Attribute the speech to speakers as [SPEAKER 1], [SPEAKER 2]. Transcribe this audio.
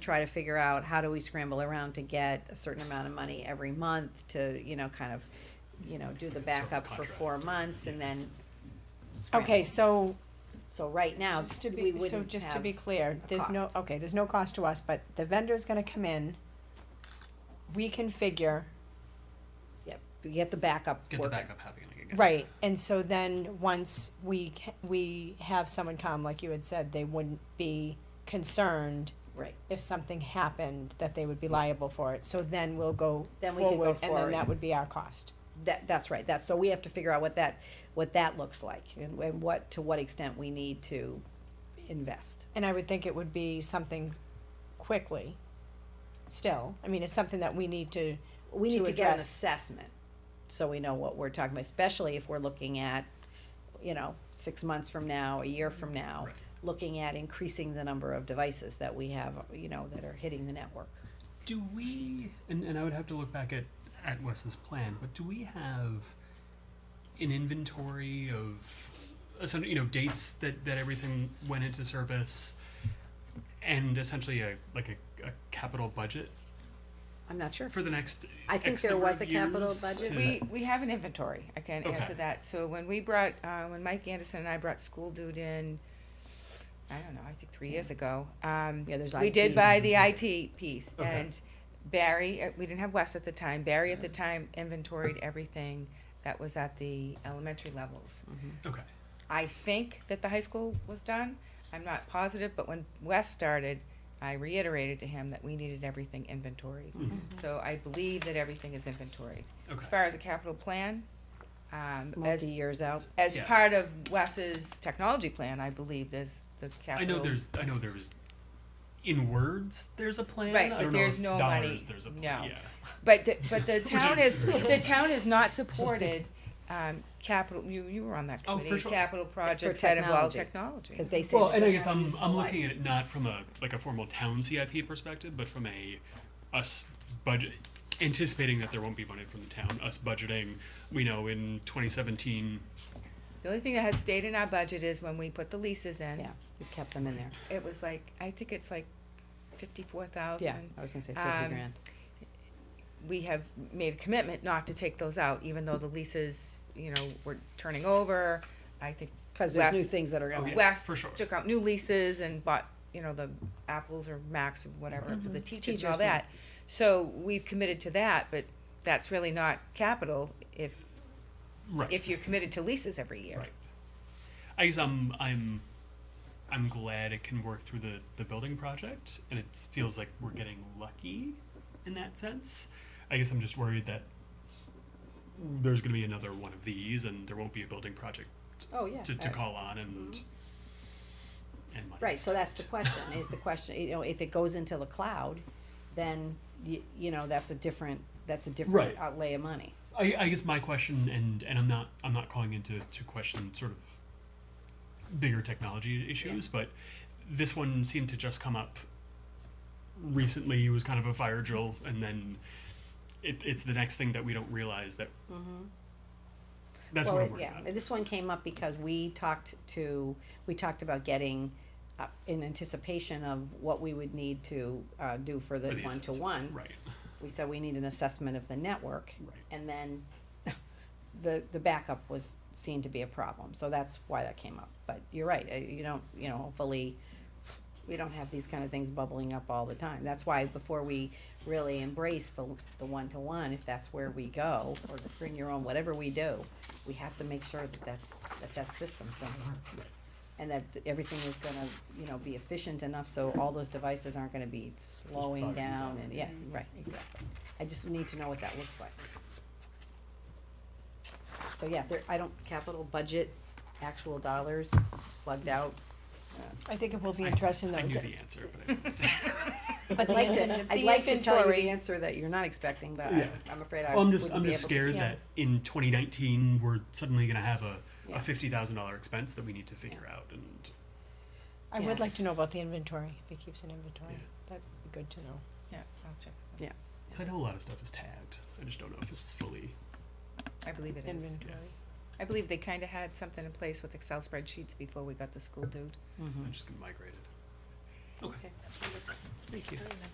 [SPEAKER 1] try to figure out how do we scramble around to get a certain amount of money every month to, you know, kind of, you know, do the
[SPEAKER 2] Like a sort of
[SPEAKER 1] backup for
[SPEAKER 2] contract.
[SPEAKER 1] four months and then. scramble.
[SPEAKER 3] Okay, so
[SPEAKER 1] So right now,
[SPEAKER 3] just to
[SPEAKER 1] we
[SPEAKER 3] be, so
[SPEAKER 1] wouldn't
[SPEAKER 3] just to
[SPEAKER 1] have,
[SPEAKER 3] be clear,
[SPEAKER 1] a
[SPEAKER 3] there's no, okay, there's no cost to us, but the vendor's gonna come in, reconfigure,
[SPEAKER 1] yeah, we get the backup
[SPEAKER 2] Get the
[SPEAKER 1] working.
[SPEAKER 2] backup happening again.
[SPEAKER 3] right, and so then, once we, ca- we have someone come, like you had said, they wouldn't be concerned
[SPEAKER 1] Right,
[SPEAKER 3] if something happened, that they would be liable for it, so then we'll go
[SPEAKER 1] Then we could go
[SPEAKER 3] forward, and then
[SPEAKER 1] forward.
[SPEAKER 3] that would be our cost.
[SPEAKER 1] that, that's right, that's, so we have to figure out what that, what that looks like and, and what, to what extent we need to invest.
[SPEAKER 3] And I would think it would be something quickly, still, I mean, it's something that we need to,
[SPEAKER 1] We
[SPEAKER 3] to
[SPEAKER 1] need to get an
[SPEAKER 3] address.
[SPEAKER 1] assessment, so we know what we're talking about, especially if we're looking at, you know, six months from now, a year from now,
[SPEAKER 2] Right.
[SPEAKER 1] looking at increasing the number of devices that we have, you know, that are hitting the network.
[SPEAKER 2] Do we? And, and I would have to look back at at Wes's plan, but do we have an inventory of essentially you know dates that that everything went into service, and essentially a like a, a capital budget
[SPEAKER 1] I'm not sure.
[SPEAKER 2] for the next.
[SPEAKER 1] I think
[SPEAKER 2] X
[SPEAKER 1] there
[SPEAKER 2] number
[SPEAKER 1] was
[SPEAKER 2] of
[SPEAKER 1] a capital
[SPEAKER 2] years
[SPEAKER 1] budget.
[SPEAKER 2] to-
[SPEAKER 4] We, we have an inventory, I can
[SPEAKER 2] Okay.
[SPEAKER 4] answer that, so when we brought, uh, when Mike Anderson and I brought School Dude in, I don't know, I think three years ago, um,
[SPEAKER 1] Yeah, there's
[SPEAKER 4] we did
[SPEAKER 1] IT.
[SPEAKER 4] buy the IT piece,
[SPEAKER 2] Okay.
[SPEAKER 4] and Barry, uh, we didn't have Wes at the time, Barry at the time inventoried everything that was at the elementary levels.
[SPEAKER 2] okay.
[SPEAKER 4] I think that the high school was done. I'm not positive, but when Wes started, I reiterated to him that we needed everything inventoried.
[SPEAKER 2] Mhm.
[SPEAKER 4] So I believe that everything is inventoried.
[SPEAKER 2] Okay.
[SPEAKER 4] As far as a capital plan, um, as,
[SPEAKER 1] Multi years out.
[SPEAKER 4] as
[SPEAKER 2] Yeah.
[SPEAKER 4] part of Wes's technology plan, I believe there's the
[SPEAKER 2] I
[SPEAKER 4] capital.
[SPEAKER 2] know there's. I know there was. In words, there's a plan.
[SPEAKER 4] Right,
[SPEAKER 2] I
[SPEAKER 4] but
[SPEAKER 2] don't know
[SPEAKER 4] there's
[SPEAKER 2] if
[SPEAKER 4] no
[SPEAKER 2] dollars,
[SPEAKER 4] money.
[SPEAKER 2] There's a plan.
[SPEAKER 4] No.
[SPEAKER 2] Yeah.
[SPEAKER 4] But, the- but the
[SPEAKER 2] Which
[SPEAKER 4] town
[SPEAKER 2] is
[SPEAKER 4] is,
[SPEAKER 2] very
[SPEAKER 4] the town is not supported, um, capital, you, you were on that
[SPEAKER 2] Oh, for
[SPEAKER 4] committee,
[SPEAKER 2] sure.
[SPEAKER 4] capital projects that involve
[SPEAKER 1] technology.
[SPEAKER 4] technology.
[SPEAKER 1] Because they say.
[SPEAKER 2] Well,
[SPEAKER 1] that
[SPEAKER 2] and I
[SPEAKER 1] they're
[SPEAKER 2] guess
[SPEAKER 1] not
[SPEAKER 2] I'm
[SPEAKER 1] useful
[SPEAKER 2] I'm
[SPEAKER 1] life.
[SPEAKER 2] looking at it not from a like a formal town CIP perspective, but from a us budget anticipating that there won't be money from the town. Us budgeting, we know in 2017.
[SPEAKER 4] The only thing that has stayed in our budget is when we put the leases in.
[SPEAKER 1] Yeah, you kept them in there.
[SPEAKER 4] It was like, I think it's like fifty-four
[SPEAKER 1] Yeah,
[SPEAKER 4] thousand.
[SPEAKER 1] I was gonna say
[SPEAKER 4] Um,
[SPEAKER 1] fifty grand.
[SPEAKER 4] We have made a commitment not to take those out, even though the leases, you know, were turning over. I think
[SPEAKER 1] Cause there's new
[SPEAKER 4] Wes-
[SPEAKER 1] things that are
[SPEAKER 2] Oh,
[SPEAKER 1] gonna,
[SPEAKER 2] yeah.
[SPEAKER 4] West
[SPEAKER 2] for sure.
[SPEAKER 4] took out new leases and bought, you know, the apples or Macs or whatever for the Mm-hmm. teachers and all
[SPEAKER 1] Teachers, yeah.
[SPEAKER 4] that. So we've committed to that, but that's really not capital if,
[SPEAKER 2] Right.
[SPEAKER 4] if you're committed to leases every year.
[SPEAKER 2] right. I guess I'm I'm I'm glad it can work through the the building project, and it feels like we're getting lucky in that sense. I guess I'm just worried that there's going to be another one of these, and there won't be a building project
[SPEAKER 1] oh, yeah.
[SPEAKER 2] to, to
[SPEAKER 1] I-
[SPEAKER 2] call on and and money.
[SPEAKER 1] Right, so that's the question, is the question, you know, if it goes into the cloud, then you, you know, that's a different, that's a different
[SPEAKER 2] Right.
[SPEAKER 1] outlay of money.
[SPEAKER 2] I, I guess my question, and and I'm not I'm not calling into to question sort of bigger technology issues, but this one seemed to just come up recently. It was kind of a fire drill, and then it, it's the next thing that we don't realize that. That's
[SPEAKER 1] Mm-hmm. Well,
[SPEAKER 2] what I'm
[SPEAKER 1] it-
[SPEAKER 2] worried
[SPEAKER 1] yeah,
[SPEAKER 2] about.
[SPEAKER 1] This one came up because we talked to, we talked about getting, uh, in anticipation of what we would need to, uh, do for the
[SPEAKER 2] For the assessment.
[SPEAKER 1] one-to-one.
[SPEAKER 2] Right.
[SPEAKER 1] We said we need an assessment of the network.
[SPEAKER 2] Right.
[SPEAKER 1] And then the, the backup was seen to be a problem, so that's why that came up. But you're right, uh, you don't, you know, hopefully, we don't have these kind of things bubbling up all the time. That's why before we really embrace the, the one-to-one, if that's where we go, or the bring your own, whatever we do, we have to make sure that that's, that that system's gonna work. And that everything is gonna, you know, be efficient enough, so all those devices aren't gonna be slowing
[SPEAKER 2] bogging
[SPEAKER 1] down,
[SPEAKER 2] down.
[SPEAKER 1] and, yeah, right, exactly. I just need to know what that looks like. So yeah, there, I don't, capital budget, actual dollars plugged out.
[SPEAKER 3] I think it will be interesting though.
[SPEAKER 2] I knew
[SPEAKER 3] that-
[SPEAKER 2] the answer, but I,
[SPEAKER 1] I'd like to, I'd like to tell you
[SPEAKER 3] inventory.
[SPEAKER 1] the answer that you're not expecting, but
[SPEAKER 2] Yeah.
[SPEAKER 1] I- I'm afraid I
[SPEAKER 2] well, I'm
[SPEAKER 1] wouldn't be able
[SPEAKER 2] just
[SPEAKER 1] to.
[SPEAKER 2] I'm just scared
[SPEAKER 3] yeah.
[SPEAKER 2] that in 2019 we're suddenly going to have a,
[SPEAKER 1] Yeah.
[SPEAKER 2] a fifty thousand dollar expense that we need to figure out and.
[SPEAKER 3] I
[SPEAKER 1] Yeah.
[SPEAKER 3] would like to know about the inventory, if he keeps an inventory, that'd be good to know.
[SPEAKER 4] Yeah, I'll check.
[SPEAKER 2] Because I know a lot of stuff is tagged. I just don't know if it's fully.
[SPEAKER 4] I believe it is.
[SPEAKER 3] Inventory.
[SPEAKER 4] I believe they kinda had something in place with Excel spreadsheets before we got the school dude.
[SPEAKER 2] I'm just gonna migrate it. Okay.
[SPEAKER 1] Okay.
[SPEAKER 2] Thank you.